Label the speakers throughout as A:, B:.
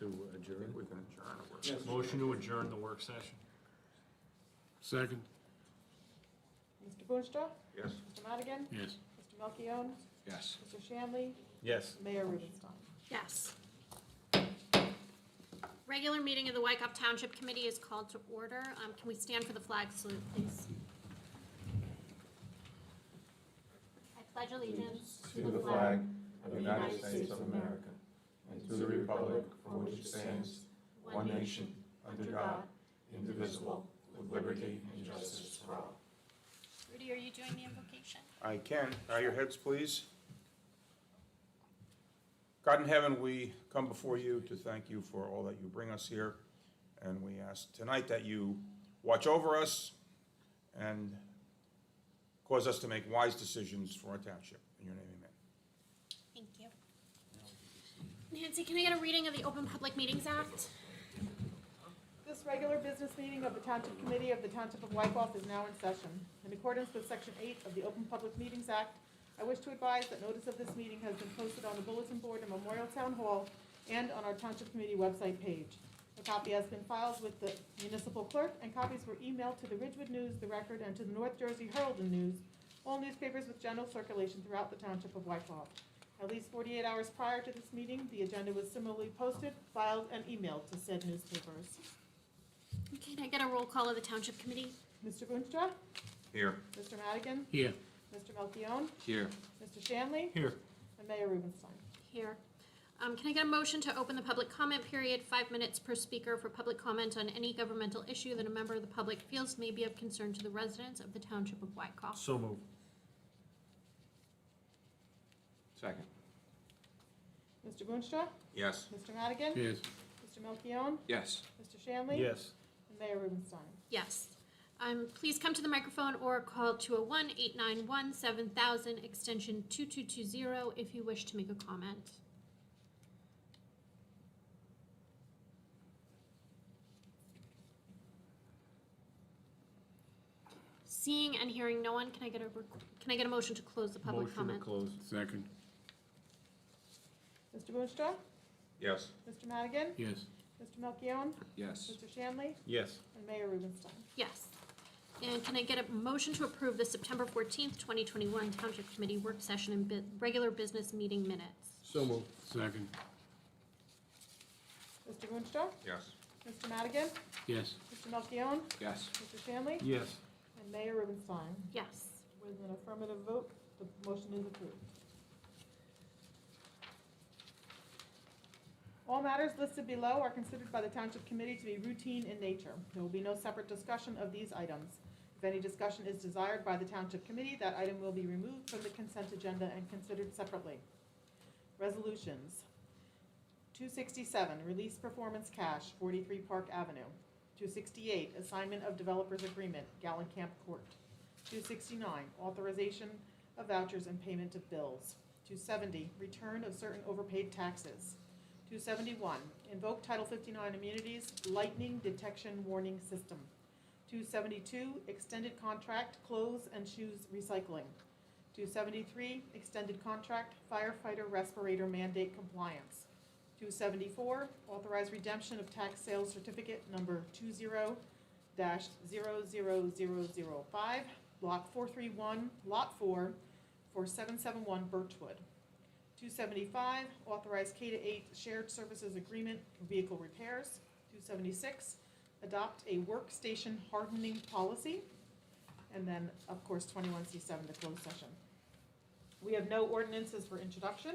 A: adjourn?
B: think we can adjourn. if we're-
C: Motion to adjourn the work session.
D: Second,
E: Mr. Boonstra,
B: Yes.
E: Mr. Madigan,
D: yes.
E: Mr. Melchiong,
A: Yes.
E: Mr. Shanley,
C: Yes.
E: Mayor Rubenstein.
F: Yes. Regular meeting of the Wykoff Township Committee is called to order. Um, Can we stand for the flag salute, please? I pledge allegiance to the flag of the United States of America and to the republic for which it stands, one nation, under God, indivisible, with liberty and justice for all. Rudy, are you doing the invocation?
G: I can. Bow your heads, please. God in heaven, we come before you to thank you for all that you bring us here. And we ask tonight that you watch over us and cause us to make wise decisions for our township. In your name, amen.
F: Thank you. Nancy, can I get a reading of the Open Public Meetings Act?
E: This regular business meeting of the Township Committee of the Township of Wykoff is now in session. In accordance with Section 8 of the Open Public Meetings Act, I wish to advise that notice of this meeting has been posted on the bulletin board in Memorial Town Hall and on our Township Committee website page. A copy has been filed with the municipal clerk, and copies were emailed to the Ridgewood News, the Record, and to the North Jersey Herald and News, all newspapers with general circulation throughout the Township of Wykoff. At least 48 hours prior to this meeting, the agenda was similarly posted, filed, and emailed to said newspapers.
F: Okay, Can I get a roll call of the Township Committee?
E: Mr. Boonstra,
G: Here.
E: Mr. Madigan,
D: Here,
E: Mr. Melchiong,
A: Here.
E: Mr. Shanley,
C: Here.
E: and Mayor Rubenstein.
F: Here. Um, Can I get a motion to open the public comment period, five minutes per speaker for public comment on any governmental issue that a member of the public feels may be of concern to the residents of the Township of Wykoff?
C: So moved.
A: Second.
E: Mr. Boonstra,
G: Yes.
E: Mr. Madigan,
D: yes.
E: Mr. Melchiong,
A: Yes.
E: Mr. Shanley,
C: Yes.
E: and Mayor Rubenstein.
F: Yes. Um, Please come to the microphone or call 201-891-7000, extension 2220, if you wish to make a comment. Seeing and hearing no one, can I get a, rec- can I get a motion to close the public
C: Motion to
F: comment?
C: close.
D: Second,
E: Mr. Boonstra,
G: Yes.
E: Mr. Madigan,
D: yes.
E: Mr. Melchiong,
A: Yes.
E: Mr. Shanley,
C: Yes.
E: and Mayor Rubenstein.
F: Yes. And can I get a motion to approve the September 14th, 2021 Township Committee Work Session and bu- Regular Business Meeting Minutes?
D: So moved. Second,
E: Mr. Boonstra,
G: Yes.
E: Mr. Madigan,
D: yes.
E: Mr. Melchiong,
A: Yes.
E: Mr. Shanley,
C: Yes.
E: and Mayor Rubenstein.
F: Yes.
E: With an affirmative vote, the motion is approved. All matters listed below are considered by the Township Committee to be routine in nature. There will be no separate discussion of these items. If any discussion is desired by the Township Committee, that item will be removed from the consent agenda and considered separately. Resolutions. 267, release performance cash, 43 Park Avenue. 268, assignment of developers agreement, Gallencamp Court. 269, authorization of vouchers and payment of bills. 270, return of certain overpaid taxes. 271, invoke Title 59 immunities, lightning detection warning system. 272, extended contract, clothes and shoes recycling. 273, extended contract, firefighter respirator mandate compliance. 274, authorize redemption of tax sales certificate number 20 dash zero zero zero zero five, block four three one, lot four, for seven seven one Birchwood. Two seventy-five, authorize K to eight shared services agreement for vehicle repairs. Two seventy-six, adopt a workstation hardening policy. And then, of course, twenty-one C seven, the closed session. We have no ordinances for introduction,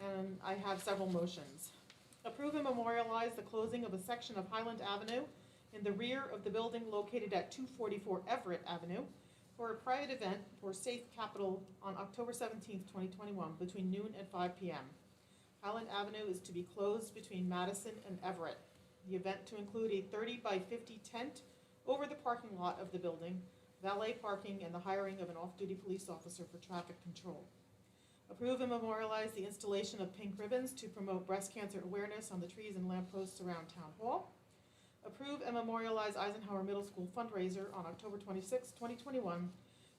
E: and I have several motions. Approve and memorialize the closing of a section of Highland Avenue in the rear of the building located at 244 Everett Avenue for a private event for Safe Capital on October 17th, 2021, between noon and 5 p.m. Highland Avenue is to be closed between Madison and Everett. The event to include a 30 by 50 tent over the parking lot of the building, valet parking, and the hiring of an off-duty police officer for traffic control. Approve and memorialize the installation of pink ribbons to promote breast cancer awareness on the trees and lampposts around Town Hall. Approve and memorialize Eisenhower Middle School fundraiser on October 26, 2021,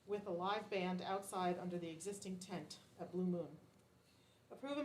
E: with a live band outside under the existing tent at Blue Moon. Approve and